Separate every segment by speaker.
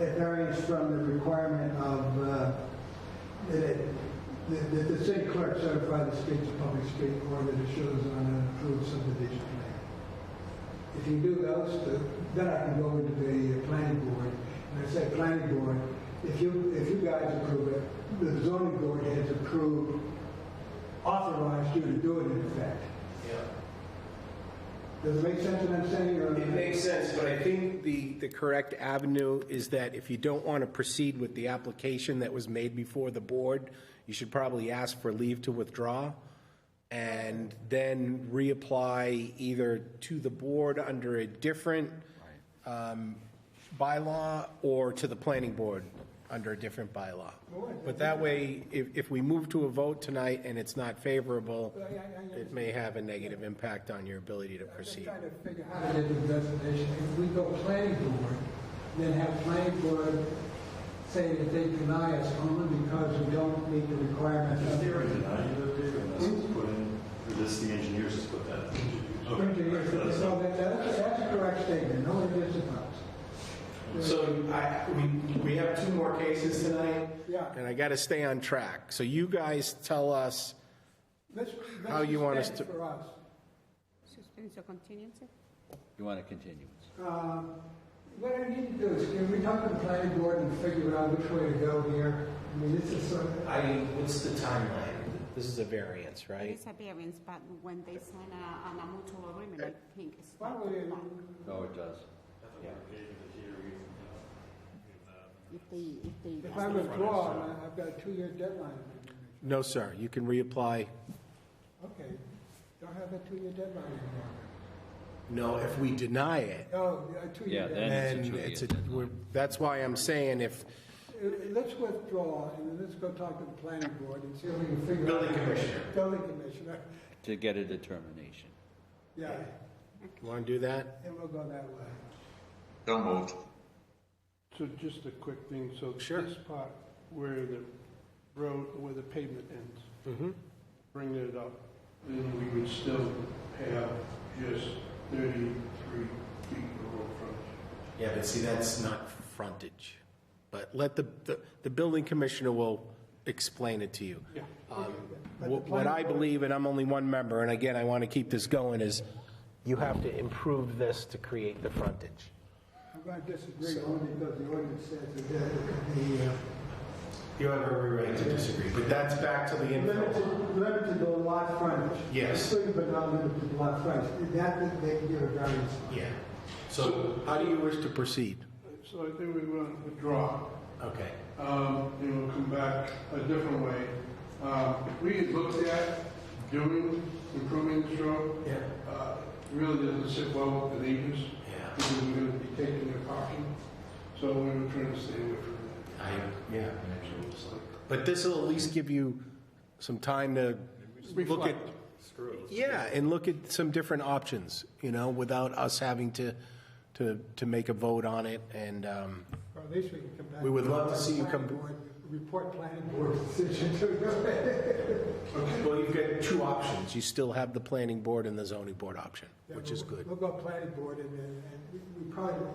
Speaker 1: it varies from the requirement of, uh, that it- that that the city clerk certify the street's a public street or that it shows on an approved subdivision plan. If you do those two, then I can go into the uh, planning board, and I say, planning board, if you, if you guys approve it, the zoning board has approved, authorized you to do it in effect.
Speaker 2: Yeah.
Speaker 1: Does it make sense what I'm saying, or?
Speaker 2: It makes sense, but I think the, the correct avenue is that if you don't want to proceed with the application that was made before the board, you should probably ask for leave to withdraw and then reapply either to the board under a different um, bylaw or to the planning board under a different bylaw. But that way, if, if we move to a vote tonight and it's not favorable, it may have a negative impact on your ability to
Speaker 1: Just
Speaker 2: proceed.
Speaker 1: trying to figure out how to get the investigation. If we go planning board, then have planning board say that they deny us only because we don't meet the requirements
Speaker 3: Is
Speaker 1: of
Speaker 3: there a
Speaker 1: the...
Speaker 3: denying of the agreement? This is put in, or this, the engineers just put that?
Speaker 1: Engineers,
Speaker 3: Okay, that's
Speaker 1: so
Speaker 3: not-
Speaker 1: that- that's, that's a correct statement, no one gets
Speaker 2: So I, we, we have two more cases tonight.
Speaker 1: Yeah.
Speaker 2: And I got to stay on track. So you guys tell us,
Speaker 1: Let's,
Speaker 2: How
Speaker 1: let's
Speaker 2: you want us
Speaker 1: suspend
Speaker 2: to-
Speaker 1: for us.
Speaker 4: Suspense or continuance?
Speaker 5: You want a continuance?
Speaker 1: Uh, What I need to do is, can we talk to the planning board and figure out which way to go here? I mean, this is sort of,
Speaker 2: I mean, what's the timeline? This is a variance, right?
Speaker 4: It's a variance, but when they sign a, an a mutual agreement, I think it's.
Speaker 1: why don't we,
Speaker 5: No, it does.
Speaker 4: If they, if they.
Speaker 1: if I withdraw, I- I've got a two-year deadline.
Speaker 2: No, sir. You can reapply.
Speaker 1: Okay, don't have a two-year deadline anymore.
Speaker 2: No, if we deny it,
Speaker 1: Oh, I tweeted
Speaker 5: Yeah,
Speaker 1: that.
Speaker 5: then- And it's a
Speaker 2: then
Speaker 5: two-year
Speaker 2: it's a,
Speaker 5: deadline.
Speaker 2: we're, that's why I'm saying if.
Speaker 1: Uh, Let's withdraw and let's go talk to the planning board and see if we can figure out.
Speaker 2: Building commissioner.
Speaker 1: Building commissioner,
Speaker 5: To get a determination.
Speaker 1: yeah,
Speaker 2: You want to do that?
Speaker 1: and we'll go that way.
Speaker 6: So moved.
Speaker 7: So just a quick thing, so
Speaker 2: Sure.
Speaker 7: this part where the road, where the pavement ends,
Speaker 2: Mm-hmm.
Speaker 7: bring it up, then we would still have just thirty-three feet of road frontage.
Speaker 2: Yeah, but see, that's not frontage. But let the, the, the building commissioner will explain it to you.
Speaker 7: Yeah.
Speaker 2: Um, wh- What I believe, and I'm only one member, and again, I want to keep this going, is you have to improve this to create the frontage.
Speaker 1: I'm going to disagree only because the ordinance says that the, the, uh,
Speaker 2: You have every right to disagree, but that's back to the info.
Speaker 1: limited, limited to lot frontage.
Speaker 2: Yes.
Speaker 1: Including but not limited to lot frontage, that they can give a variance.
Speaker 2: Yeah. So how do you wish to proceed?
Speaker 7: So I think we want to withdraw,
Speaker 2: Okay.
Speaker 7: um, and we'll come back a different way. Um, we had looked at doing, improving this road,
Speaker 2: Yeah.
Speaker 7: uh, really doesn't sit well with the neighbors,
Speaker 2: Yeah.
Speaker 7: because we're gonna be taking their parking, so we were trying to stay away from that.
Speaker 2: I, yeah. But this will at least give you some time to look at.
Speaker 7: Reflect.
Speaker 2: Yeah, and look at some different options, you know, without us having to, to, to make a vote on it and, um,
Speaker 1: Or at least we can come back.
Speaker 2: We would love to see you come-
Speaker 1: Planning board, Report planning board decision to
Speaker 2: Well, you've got two options. You still have the planning board and the zoning board option, which is good.
Speaker 1: We'll go planning board and, uh, and and we- we probably,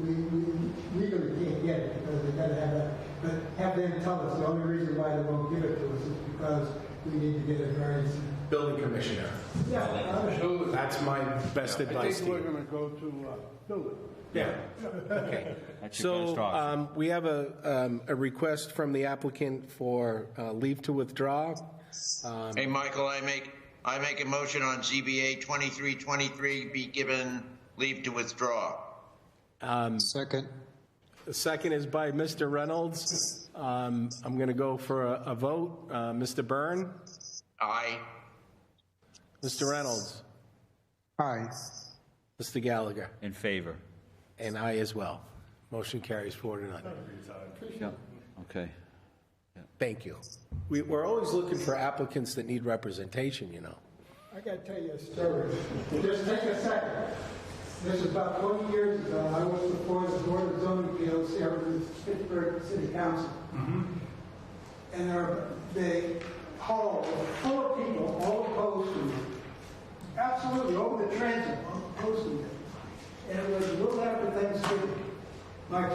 Speaker 1: we, we legally can't get it because they gotta have that. But have them tell us, the only reason why they won't give it to us is because we need to get a variance.
Speaker 2: Building commissioner.
Speaker 1: Yeah, I would-
Speaker 7: Build it.
Speaker 2: That's my best
Speaker 7: I
Speaker 2: advice to
Speaker 7: think we're
Speaker 2: you.
Speaker 7: gonna go to, uh, build it.
Speaker 2: Yeah. Okay.
Speaker 5: That's your
Speaker 2: So
Speaker 5: best option.
Speaker 2: um, we have a, um, a request from the applicant for uh, leave to withdraw.
Speaker 6: Hey, Michael, I make, I make a motion on ZBA 2323 be given leave to withdraw.
Speaker 8: Second.
Speaker 2: The second is by Mr. Reynolds. Um, I'm going to go for a a vote. Uh, Mr. Byrne?
Speaker 6: Aye.
Speaker 2: Mr. Reynolds?
Speaker 8: Aye.
Speaker 2: Mr. Gallagher?
Speaker 5: In favor?
Speaker 2: And I as well. Motion carries four to none.
Speaker 5: Yeah. Okay.
Speaker 2: Thank you. We, we're always looking for applicants that need representation, you know.
Speaker 1: I gotta tell you a story. Just take a second. This is about 20 years ago. I was before the Board of Zoning Appeals here in the Pittsburgh City Council. And our, the hall was full of people, all opposed to it. Absolutely, over the transit, opposed to it. And it was a little after Thanksgiving. My